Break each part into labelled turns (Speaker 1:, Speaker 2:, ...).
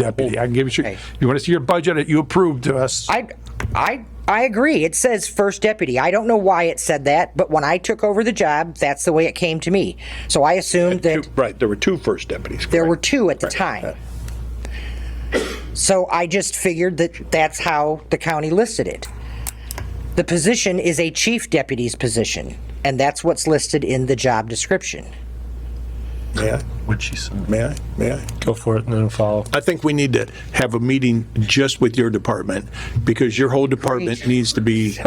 Speaker 1: Oh.
Speaker 2: deputy. I can give you,
Speaker 3: Okay.
Speaker 2: you want to see your budget that you approved uh, to us?
Speaker 3: I, I, I agree. It says first deputy. I don't know why it said that, but when I took over the job, that's the way it came to me. So I assumed that
Speaker 1: Two- Right, there were two first deputies.
Speaker 3: there were
Speaker 1: correct.
Speaker 3: two at the time. So I just figured that that's how the county listed it. The position is a chief deputy's position, and that's what's listed in the job description.
Speaker 1: May I?
Speaker 4: What she said.
Speaker 1: May I? May I?
Speaker 4: Go for it and then follow.
Speaker 1: I think we need to have a meeting just with your department because your whole department needs to be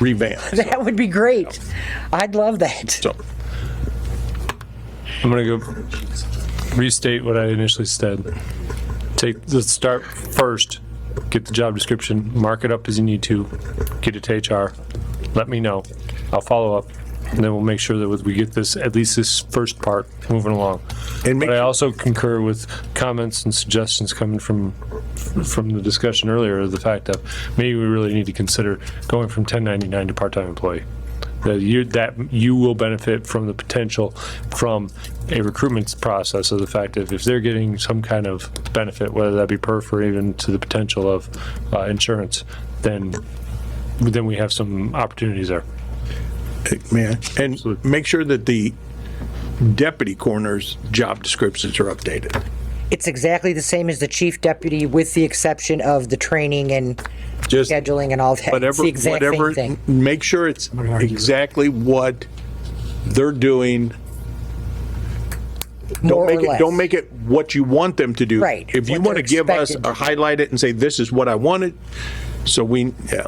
Speaker 1: revamped.
Speaker 3: That would be great. I'd love that.
Speaker 1: So,
Speaker 4: I'm gonna go restate what I initially said. Take, let's start first, get the job description, mark it up as you need to, get it to HR, let me know. I'll follow up and then we'll make sure that we get this, at least this first part moving along.
Speaker 1: And make-
Speaker 4: But I also concur with comments and suggestions coming from, from the discussion earlier, the fact that maybe we really need to consider going from 1099 to part-time employee. That you, that you will benefit from the potential from a recruitment process of the fact that if they're getting some kind of benefit, whether that be perf or even to the potential of uh, insurance, then, then we have some opportunities there.
Speaker 1: May I? And make sure that the deputy coroner's job descriptions are updated.
Speaker 3: It's exactly the same as the chief deputy, with the exception of the training and
Speaker 1: Just
Speaker 3: scheduling and all that. It's
Speaker 1: whatever,
Speaker 3: the exact same
Speaker 1: whatever,
Speaker 3: thing.
Speaker 1: make sure it's exactly what they're doing.
Speaker 3: More
Speaker 1: Don't
Speaker 3: or
Speaker 1: make it,
Speaker 3: less.
Speaker 1: don't make it what you want them to do.
Speaker 3: Right,
Speaker 1: If you want
Speaker 3: what
Speaker 1: to
Speaker 3: they're
Speaker 1: give us
Speaker 3: expected to
Speaker 1: or highlight it and say, this is what I wanted, so we, yeah,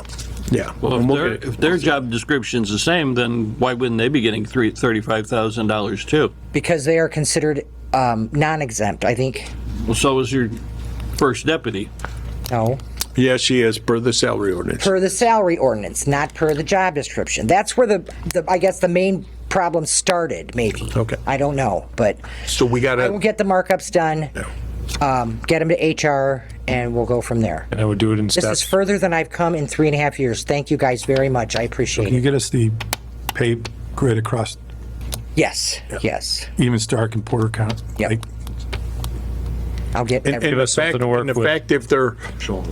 Speaker 1: yeah.
Speaker 5: Well,
Speaker 1: And
Speaker 5: if
Speaker 1: we'll
Speaker 5: their,
Speaker 1: get it.
Speaker 5: if their job description's the same, then why wouldn't they be getting three, thirty-five thousand dollars too?
Speaker 3: Because they are considered um, non-exempt, I think.
Speaker 5: Well, so is your first deputy.
Speaker 3: No,
Speaker 1: Yes, she is, per the salary ordinance.
Speaker 3: per the salary ordinance, not per the job description. That's where the, the I guess the main problem started, maybe.
Speaker 1: Okay. Uh,
Speaker 3: I don't know, but
Speaker 1: So we
Speaker 3: I will
Speaker 1: gotta,
Speaker 3: get the markups done. Um, get them to HR, and we'll go from there.
Speaker 4: And I would do it in
Speaker 3: This
Speaker 4: steps.
Speaker 3: is further than I've come in three and a half years. Thank you guys very much. I appreciate
Speaker 6: Can you
Speaker 3: it.
Speaker 6: get us the pay grid across
Speaker 3: Yes, yes.
Speaker 6: even Stark and Porter County?
Speaker 3: Yep.
Speaker 6: Like,
Speaker 3: I'll get.
Speaker 1: and
Speaker 3: every-
Speaker 1: in
Speaker 4: Give us
Speaker 1: fact,
Speaker 4: something to work
Speaker 1: in
Speaker 4: with.
Speaker 1: fact, if they're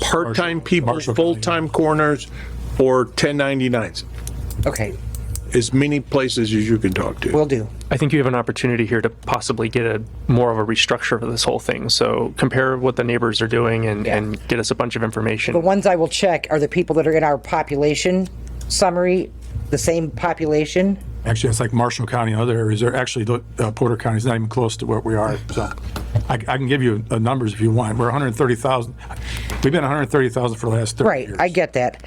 Speaker 1: part-time people,
Speaker 6: Marshall County.
Speaker 1: full-time coroners, or 1099s,
Speaker 3: okay,
Speaker 1: as many places as you can talk to.
Speaker 3: we'll do.
Speaker 7: I think you have an opportunity here to possibly get a more of a restructure of this whole thing. So compare what the neighbors are doing and, and get us a bunch of information.
Speaker 3: The ones I will check are the people that are in our population summary, the same population.
Speaker 6: Actually, it's like Marshall County and other areas. They're actually, the- uh, Porter County's not even close to where we are. So I, I can give you uh, numbers if you want. We're 130,000. We've been 130,000 for the last 30
Speaker 3: Right,
Speaker 6: years.
Speaker 3: I get that.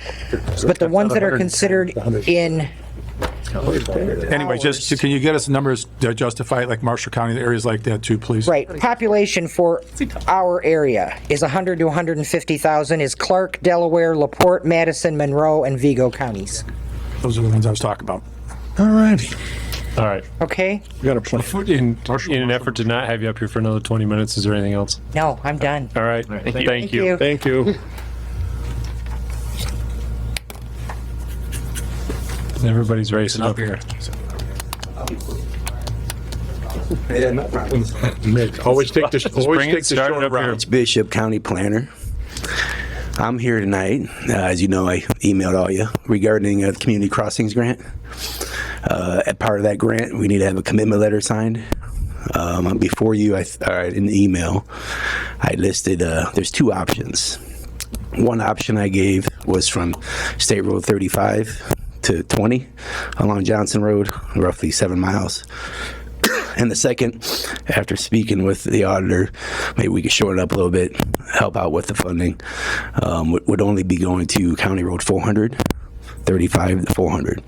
Speaker 3: But the ones that are considered in,
Speaker 6: Anyway, just, can you get us numbers to justify it, like Marshall County, areas like that too, please?
Speaker 3: right, population for our area is 100 to 150,000 is Clark, Delaware, LaPorte, Madison, Monroe, and Vigo counties.
Speaker 6: Those are the ones I was talking about.
Speaker 1: All righty.
Speaker 4: All right.
Speaker 3: Okay?
Speaker 1: We got a plan.
Speaker 4: In, in an effort to not have you up here for another 20 minutes, is there anything else?
Speaker 3: No, I'm done.
Speaker 4: All right. Thank you.
Speaker 1: Thank you.
Speaker 4: Everybody's racing up here.
Speaker 1: Always take the, always
Speaker 4: bring it,
Speaker 1: take the
Speaker 4: start it
Speaker 1: short
Speaker 4: up here.
Speaker 1: route.
Speaker 8: Bishop County Planner. I'm here tonight. Uh, as you know, I emailed all you regarding a community crossings grant. Uh, as part of that grant, we need to have a commitment letter signed. Um, before you, I, th- or in the email, I listed uh, there's two options. One option I gave was from State Road 35 to 20 along Johnson Road, roughly seven miles. And the second, after speaking with the auditor, maybe we could shorten up a little bit, help out with the funding, um, would, would only be going to County Road 400, 35 to 400.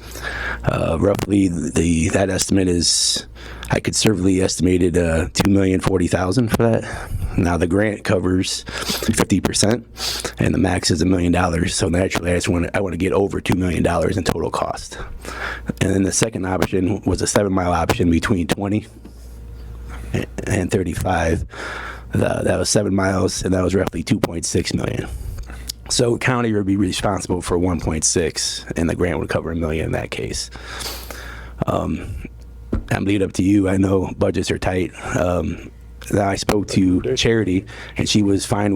Speaker 8: Uh, roughly, the that estimate is, I conservatively estimated uh, 2040000 for that. Now, the grant covers 50%, and the max is a million dollars. So naturally, I just want to, I want to get over $2 million in total cost. And then the second option was a seven mile option between 20 a- and 35. Tha- That was seven miles, and that was roughly 2.6 million. So county would be responsible for 1.6, and the grant would cover a million in that case. Um, I'm lead up to you. I know budgets are tight. Um, that I spoke to Charity, and she was fine